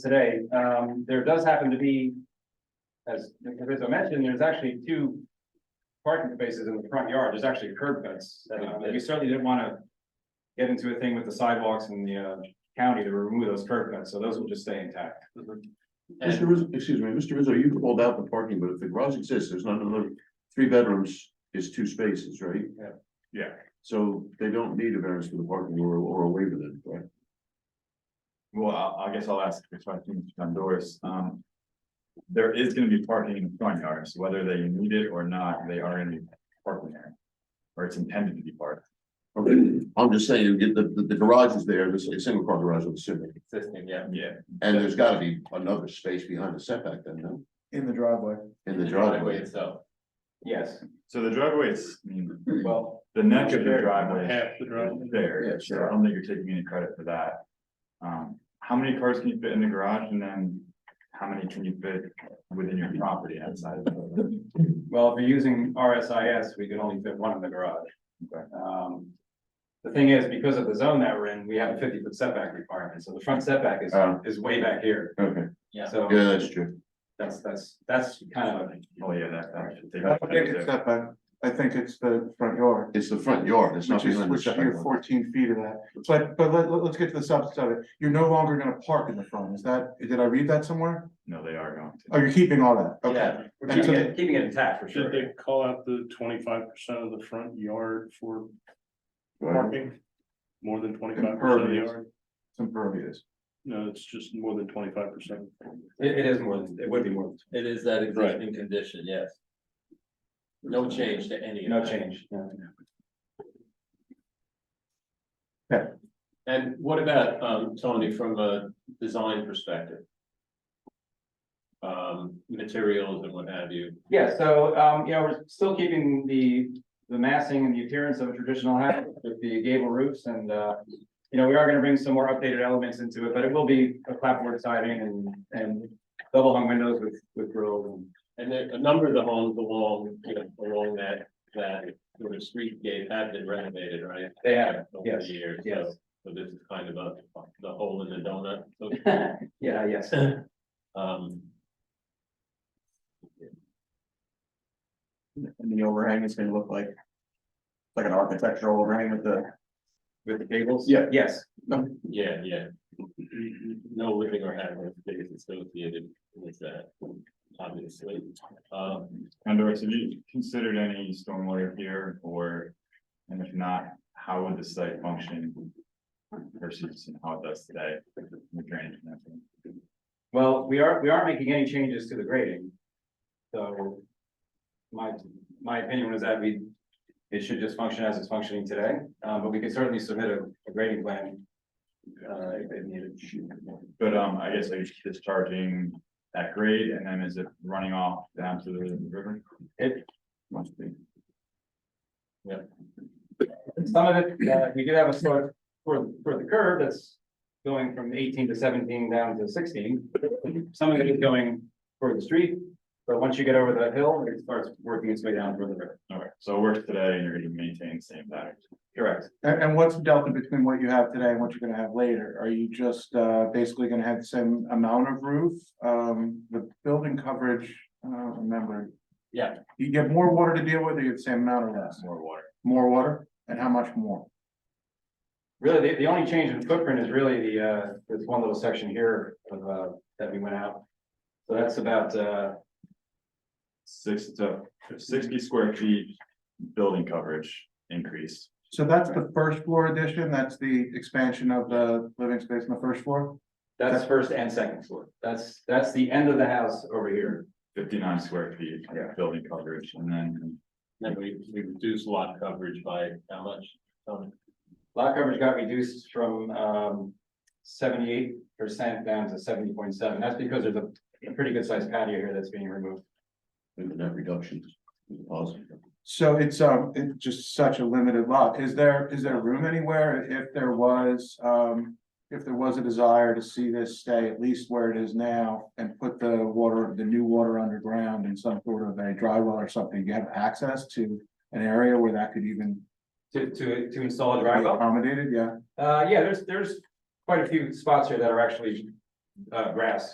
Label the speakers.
Speaker 1: today, um, there does happen to be, as Professor mentioned, there's actually two parking spaces in the front yard, there's actually curb cuts. Uh, We certainly didn't want to get into a thing with the sidewalks in the uh, county to remove those curb cuts, so those will just stay intact.
Speaker 2: Mr. Rizzo, excuse me, Mr. Rizzo, you called out the parking, but if the garage exists, there's not another, three bedrooms is two spaces, right?
Speaker 1: Yeah.
Speaker 3: Yeah.
Speaker 2: So they don't need a variance for the parking or, or a waiver then, right?
Speaker 3: Well, I, I guess I'll ask the question to Honduras, um. There is gonna be parking in the front yards, whether they need it or not, they are gonna be parking there. Or it's intended to be parked.
Speaker 2: Okay, I'm just saying, you get the, the- the garage is there, this is a single car garage, I'm assuming,
Speaker 1: Existing, yeah.
Speaker 3: Yeah.
Speaker 2: and there's gotta be another space behind the setback then, no?
Speaker 3: In the driveway.
Speaker 2: In the driveway,
Speaker 1: itself. Yes,
Speaker 3: So the driveway is, I mean,
Speaker 1: well,
Speaker 3: the neck of the driveway.
Speaker 4: Half the driveway.
Speaker 3: is There,
Speaker 2: Yeah,
Speaker 3: so
Speaker 2: sure.
Speaker 3: I don't think you're taking any credit for that. Um, how many cars can you fit in the garage and then how many can you fit within your property outside of the?
Speaker 1: well, if you're using RSIS, we could only fit one in the garage.
Speaker 3: Okay.
Speaker 1: Um, The thing is, because of the zone that we're in, we have a fifty foot setback requirement, so the front setback is,
Speaker 2: Oh.
Speaker 1: is way back here,
Speaker 2: okay,
Speaker 1: so
Speaker 2: yeah, that's true.
Speaker 1: that's, that's, that's kind of a
Speaker 3: Oh, yeah, that, that should take.
Speaker 5: I don't think it's that bad. I think it's the front yard,
Speaker 2: It's the front yard, it's not
Speaker 5: which is,
Speaker 2: behind the
Speaker 5: which
Speaker 2: setback.
Speaker 5: you're fourteen feet of that. But, but let, let- let's get to the substance of it. You're no longer gonna park in the front. Is that, did I read that somewhere?
Speaker 3: No, they are going to.
Speaker 5: Oh, you're keeping all that? Okay.
Speaker 1: Yeah, we're
Speaker 5: And
Speaker 1: keeping
Speaker 5: so
Speaker 1: it, keeping it intact for sure.
Speaker 4: Should they call out the twenty-five percent of the front yard for
Speaker 2: Right.
Speaker 4: parking? More than twenty-five percent of the
Speaker 5: Impervious.
Speaker 4: yard?
Speaker 5: It's impervious.
Speaker 4: No, it's just more than twenty-five percent.
Speaker 1: It, it is more than, it would be more, than-
Speaker 6: It is that
Speaker 4: Right.
Speaker 6: existing condition, yes. No change to any. of
Speaker 1: no
Speaker 6: that.
Speaker 1: change. no.
Speaker 6: And what about, um, Tony, from a design perspective? Um, materials and what have you,
Speaker 1: Yeah, so, um, you know, we're still keeping the, the massing and the appearance of a traditional house with the gable roofs and, uh, you know, we are gonna bring some more updated elements into it, but it will be a clapboard siding and, and double hung windows with, with grills and
Speaker 6: and there, a number of the homes along, you know, along that, that sort of street gate have been renovated, right?
Speaker 1: they have,
Speaker 6: Over
Speaker 1: yes,
Speaker 6: the years, so,
Speaker 1: yes.
Speaker 6: so this is kind of a, the hole in the donut, so to
Speaker 1: Yeah, yes.
Speaker 6: Um,
Speaker 7: And the overhang is gonna look like. Like an architectural overhang with the.
Speaker 1: With the gables?
Speaker 7: Yeah.
Speaker 1: Yes,
Speaker 6: yeah, yeah. No living or having space associated with that, obviously. Um,
Speaker 3: Honduras, have you considered any stormwater here or, and if not, how would the site function? Versus how it does today, the drainage and everything?
Speaker 1: well, we are, we are making any changes to the grading. So my, my opinion was that we, it should just function as it's functioning today, um, but we can certainly submit a a grading plan. Uh, if it needed.
Speaker 3: But um, I guess are you discharging at grade and then is it running off down to the river?
Speaker 1: It-
Speaker 3: Must be.
Speaker 1: Some of it, uh, we do have a sort for, for the curve that's going from eighteen to seventeen down to sixteen. Some of it is going for the street, but once you get over the hill, it starts working its way down toward the river.
Speaker 3: Okay, so it works today and you're gonna maintain the same pattern.
Speaker 1: Correct.
Speaker 5: And, and what's the delta between what you have today and what you're gonna have later? Are you just, uh, basically gonna have the same amount of roof? Um, the building coverage, I don't remember.
Speaker 6: Yeah.
Speaker 5: You get more water to deal with, or you have the same amount or less?
Speaker 3: More water.
Speaker 5: More water? And how much more?
Speaker 1: Really, the, the only change in footprint is really the, uh, this one little section here of, uh, that we went out. So that's about, uh,
Speaker 3: Six to sixty square feet building coverage increase.
Speaker 5: So that's the first floor addition, that's the expansion of the living space on the first floor?
Speaker 1: that's first and second floor. That's, that's the end of the house over here.
Speaker 3: Fifty-nine square feet
Speaker 1: Yeah.
Speaker 3: of building coverage and then
Speaker 6: then we, we reduce lot coverage by how much? Um,
Speaker 1: Lot coverage got reduced from, um, seventy-eight percent down to seventy point seven. That's because there's a, a pretty good sized patio here that's being removed.
Speaker 2: And that reduction is positive.
Speaker 5: So it's, um, it's just such a limited lot. Is there, is there room anywhere if there was, um, if there was a desire to see this stay at least where it is now and put the water, the new water underground in some sort of a dry well or something, you have access to an area where that could even
Speaker 1: To, to, to install a
Speaker 5: be
Speaker 1: drywall?
Speaker 5: accommodated, yeah?
Speaker 1: Uh, yeah, there's, there's quite a few spots here that are actually uh, grass.